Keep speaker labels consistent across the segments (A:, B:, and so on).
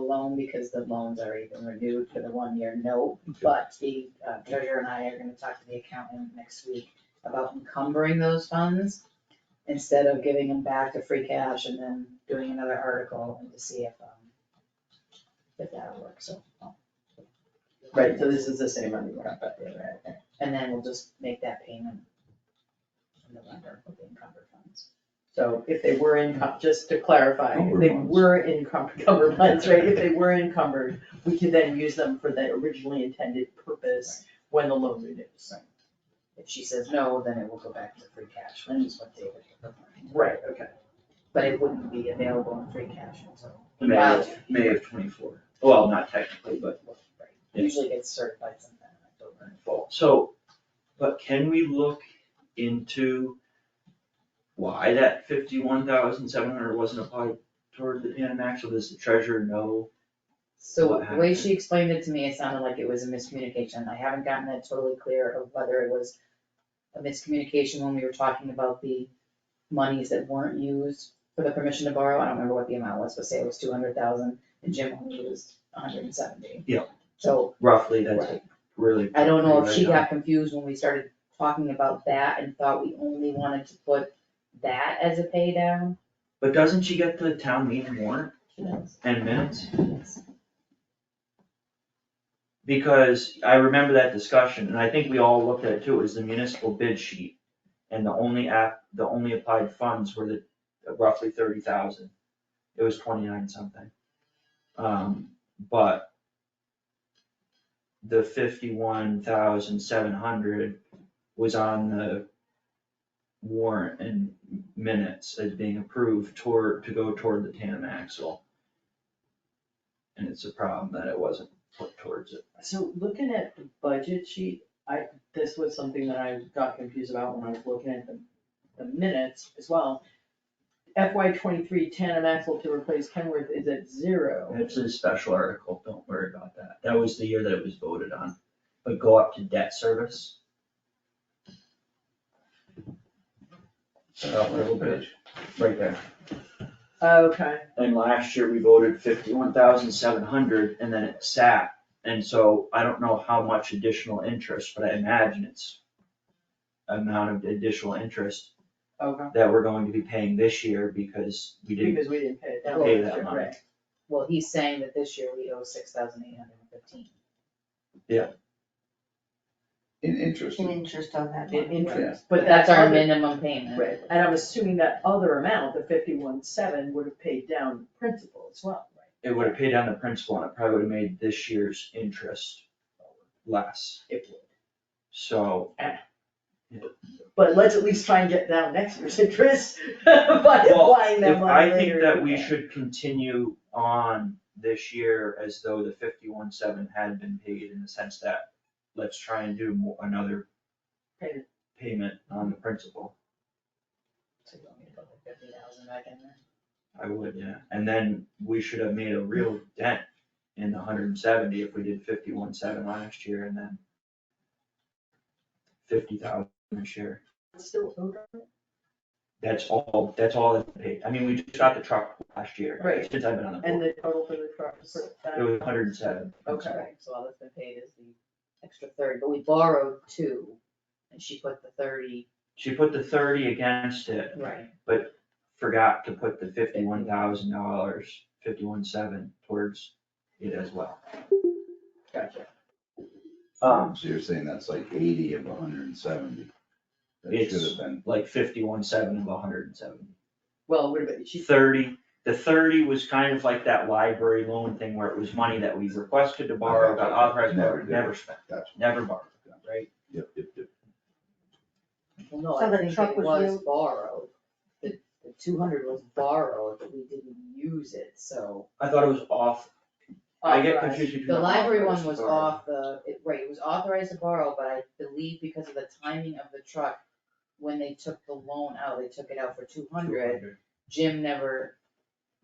A: loan because the loan's already been renewed for the one-year note. But the uh, treasurer and I are gonna talk to the accountant next week about encumbering those funds instead of giving them back to free cash and then doing another article and to see if, um, if that'll work, so. I'll-
B: Right, so this is the same money we're up at.
A: And then we'll just make that payment in November with the encumbered funds.
B: So if they were in, just to clarify, if they
C: Encumbered funds.
B: were encumbered, encumbered funds, right, if they were encumbered, we could then use them for the originally intended purpose when the loan renews.
A: If she says no, then it will go back to free cash, which is what David had proposed.
B: Right, okay.
A: But it wouldn't be available in free cash until.
C: May of, May of twenty-four, well, not technically, but
A: Usually gets certified sometime in October.
C: fall. So, but can we look into why that fifty-one thousand seven hundred wasn't applied toward the Pan Max, or does the treasurer know?
A: So
C: What
A: the way
C: happened?
A: she explained it to me, it sounded like it was a miscommunication. I haven't gotten that totally clear of whether it was a miscommunication when we were talking about the monies that weren't used for the permission to borrow. I don't remember what the amount was, but say it was two hundred thousand and Jim only used hundred and seventy.
C: Yeah.
A: So
C: Roughly, that's really.
A: I don't know if she
C: Right now.
A: got confused when we started talking about that and thought we only wanted to put that as a pay down.
C: But doesn't she get the town meeting warrant
A: She knows.
C: and minutes? Because I remember that discussion, and I think we all looked at it too, is the municipal bid sheet. And the only app, the only applied funds were the roughly thirty thousand. It was twenty-nine something. Um, but the fifty-one thousand seven hundred was on the warrant and minutes as being approved toward, to go toward the tandem axle. And it's a problem that it wasn't put towards it.
B: So looking at the budget sheet, I, this was something that I got confused about when I was looking at the, the minutes as well. FY twenty-three Tana Maxwell to replace Kenworth is at zero.
C: It's a special article, don't worry about that. That was the year that it was voted on. But go up to debt service. About a little bit, right there.
B: Okay,
C: And last year we voted fifty-one thousand seven hundred and then it sat. And so I don't know how much additional interest, but I imagine it's amount of additional interest
B: okay,
C: that we're going to be paying this year because we didn't
B: because we didn't pay it down. Oh,
C: pay that money.
A: Right. Well, he's saying that this year we owe six thousand eight hundred and fifteen.
D: In interest,
E: in interest on that
B: In
E: one.
B: interest, but
A: But that's our
B: minimum.
A: minimum payment.
B: Right, and I'm assuming that other amount, the fifty-one seven, would have paid down principal as well, right?
C: It would have paid down the principal and it probably would have made this year's interest less.
B: It would.
C: So,
B: But let's at least try and get down next year's interest by
C: Well,
B: applying that
C: if
B: money
C: I think
B: later
C: that
B: in
C: we
B: the-
C: should continue on this year as though the fifty-one seven had been paid in the sense that let's try and do mo- another
B: Payment.
C: payment on the principal.
A: So you want me to put the fifty thousand back in there?
C: I would, yeah. And then we should have made a real dent in the hundred and seventy if we did fifty-one seven last year and then fifty thousand this year.
B: Still owed on it?
C: That's all, that's all it paid. I mean, we just got the truck last year.
B: Right.
C: Since I've been on the
B: And
C: board.
B: the total for the truck for that.
C: It was hundred and seven.
B: Okay.
A: Right, So all that's been paid is the extra thirty, but we borrowed two, and she put the thirty.
C: She put the thirty against it,
A: Right.
C: forgot to put the fifty-one thousand dollars, fifty-one seven towards it as well.
B: Gotcha.
C: Um,
D: so you're saying that's like eighty of hundred and seventy? That should
C: It's-
D: have been,
C: like fifty-one seven of hundred and seven.
B: Well, what about, she,
C: Thirty, the thirty was kind of like that library loan thing where it was money that we requested to borrow, got authorized,
D: Never
C: never,
D: did.
C: never spent,
D: that's,
C: never borrowed, right?
D: yep, yep, yep.
A: Well, no,
E: So
A: I
E: the
A: think
E: truck
A: it
E: was
A: was
E: used-
A: borrowed. The, the two hundred was borrowed, but we didn't use it, so.
C: I thought it was off, I get confused between.
A: The library one
C: authorized
A: was
C: borrow.
A: off the, it- right, it was authorized to borrow, but I believe because of the timing of the truck, when they took the loan out, they took it out for two hundred.
C: 200.
A: Jim never,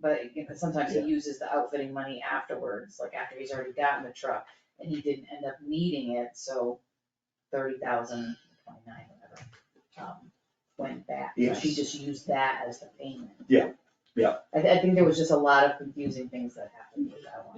A: but you know, sometimes he
C: Yeah.
A: uses the outfitting money afterwards, like after he's already gotten the truck, and he didn't end up needing it, so thirty thousand, twenty-nine, whatever, um, went back, so she
C: Yes.
A: just used that as the payment.
C: Yeah, yeah.
A: I, I think there was just a lot of confusing things that happened with that one.